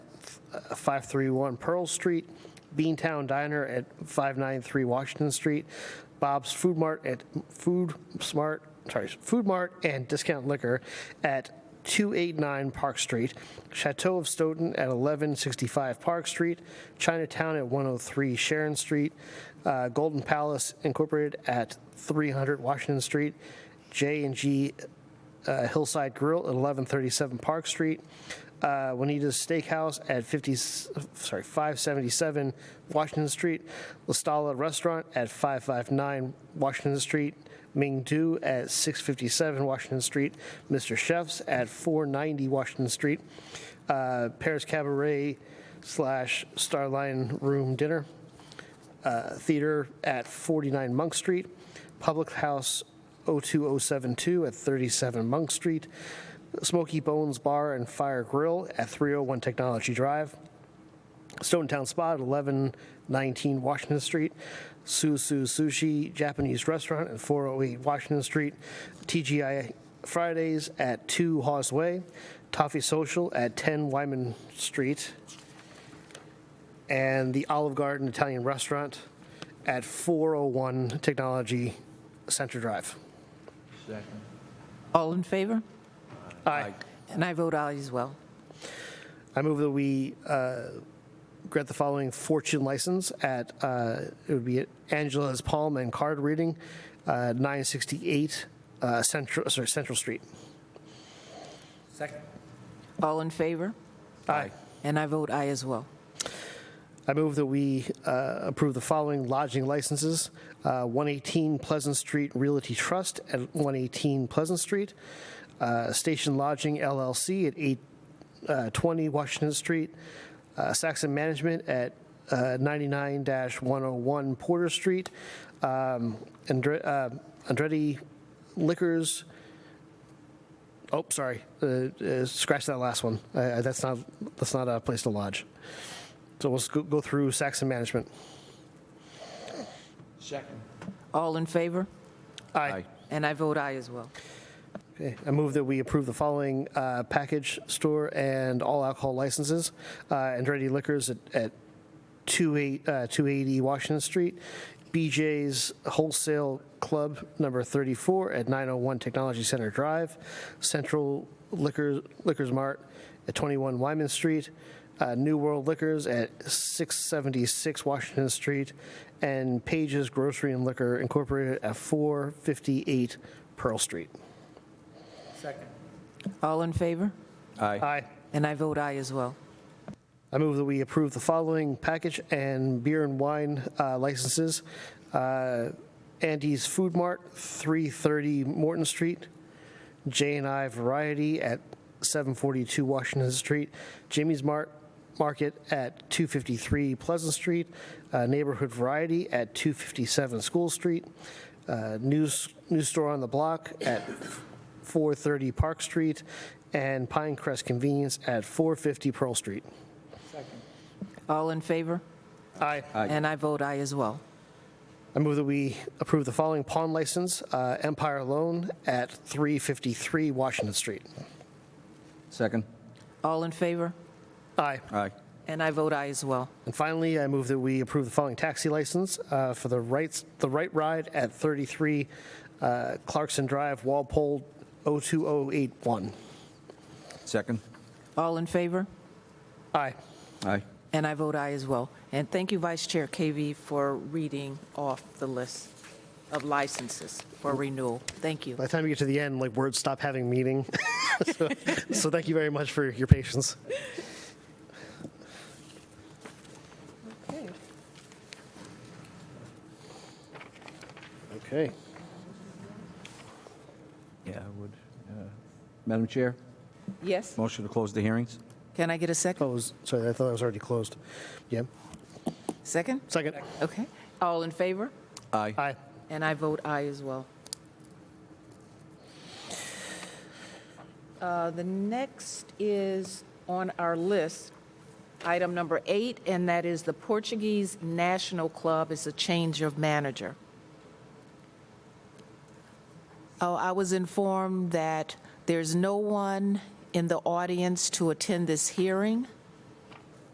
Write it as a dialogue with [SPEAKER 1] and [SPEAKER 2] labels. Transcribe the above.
[SPEAKER 1] 531 Pearl Street, Beantown Diner at 593 Washington Street, Bob's Food Mart at Food Smart, sorry, Food Mart and Discount Liquor at 289 Park Street, Chateau of Stoughton at 1165 Park Street, Chinatown at 103 Sharon Street, uh, Golden Palace Incorporated at 300 Washington Street, J and G uh, Hillside Grill at 1137 Park Street, uh, Juanita's Steakhouse at 50, sorry, 577 Washington Street, La Stalla Restaurant at 559 Washington Street, Ming Du at 657 Washington Street, Mr. Chef's at 490 Washington Street, uh, Paris Cabaret slash Starline Room Dinner. Theater at 49 Monk Street, Public House 02072 at 37 Monk Street, Smoky Bones Bar and Fire Grill at 301 Technology Drive, Stone Town Spa at 1119 Washington Street, Susu Sushi Japanese Restaurant at 408 Washington Street, TGI Fridays at 2 Hawes Way, Toffee Social at 10 Wyman Street, and the Olive Garden Italian Restaurant at 401 Technology Center Drive.
[SPEAKER 2] Second.
[SPEAKER 3] All in favor?
[SPEAKER 1] Aye.
[SPEAKER 3] And I vote aye as well.
[SPEAKER 1] I move that we uh, grant the following fortune license at, uh, it would be at Angela's Palm and Card Reading, uh, 968 uh, Central, sorry, Central Street.
[SPEAKER 2] Second.
[SPEAKER 3] All in favor?
[SPEAKER 1] Aye.
[SPEAKER 3] And I vote aye as well.
[SPEAKER 1] I move that we uh, approve the following lodging licenses. Uh, 118 Pleasant Street Realty Trust at 118 Pleasant Street. uh, Station Lodging LLC at 820 Washington Street. uh, Saxon Management at uh, 99-101 Porter Street. um, Andre- uh, Andretti Liquors, oh, sorry, uh, uh, scratch that last one. Uh, That's not, that's not a place to lodge. So we'll go- go through Saxon Management.
[SPEAKER 2] Second.
[SPEAKER 3] All in favor?
[SPEAKER 1] Aye.
[SPEAKER 3] And I vote aye as well.
[SPEAKER 1] Okay, I Eh, move that we approve the following uh, package store and all alcohol licenses. Uh, Andretti Liquors at- at 28 uh, 280 Washington Street, BJ's Wholesale Club Number 34 at 901 Technology Center Drive, Central Liquor Liquors Mart at 21 Wyman Street, uh, New World Liquors at 676 Washington Street, and Page's Grocery and Liquor Incorporated at 458 Pearl Street.
[SPEAKER 2] Second.
[SPEAKER 3] All in favor?
[SPEAKER 1] Aye.
[SPEAKER 3] And I vote aye as well.
[SPEAKER 1] I move that we approve the following package and beer and wine uh, licenses. Uh, Andy's Food Mart, 330 Morton Street, J and I Variety at 742 Washington Street, Jimmy's Mart Market at 253 Pleasant Street, uh, Neighborhood Variety at 257 School Street, uh, News News Store on the Block at 430 Park Street, and Pinecrest Convenience at 450 Pearl Street.
[SPEAKER 3] All in favor?
[SPEAKER 1] Aye.
[SPEAKER 3] And I vote aye as well.
[SPEAKER 1] I move that we approve the following pawn license, uh, Empire Loan at 353 Washington Street.
[SPEAKER 4] Second.
[SPEAKER 3] All in favor?
[SPEAKER 1] Aye.
[SPEAKER 4] Aye.
[SPEAKER 3] And I vote aye as well.
[SPEAKER 1] And finally, I move that we approve the following taxi license uh, for the rights, the right ride at 33 uh, Clarkson Drive, Walpole 02081.
[SPEAKER 4] Second.
[SPEAKER 3] All in favor?
[SPEAKER 1] Aye.
[SPEAKER 4] Aye.
[SPEAKER 3] And I vote aye as well. And thank you, Vice Chair KV, for reading off the list of licenses for renewal. Thank you.
[SPEAKER 1] By the time you get to the end, like words stop having meaning. so, so thank you very much for your patience. Okay.
[SPEAKER 4] Yeah, I would. uh, Madam Chair,
[SPEAKER 3] Yes?
[SPEAKER 4] motion to close the hearings?
[SPEAKER 3] Can I get a second?
[SPEAKER 1] Oh, was, sorry, I thought I was already closed. Yeah.
[SPEAKER 3] Second?
[SPEAKER 1] Second.
[SPEAKER 3] Okay. All in favor?
[SPEAKER 4] Aye.
[SPEAKER 1] Aye.
[SPEAKER 3] And I vote aye as well. Uh, The next is on our list, item number eight, and that is the Portuguese National Club is a change of manager. Oh, I was informed that there's no one in the audience to attend this hearing.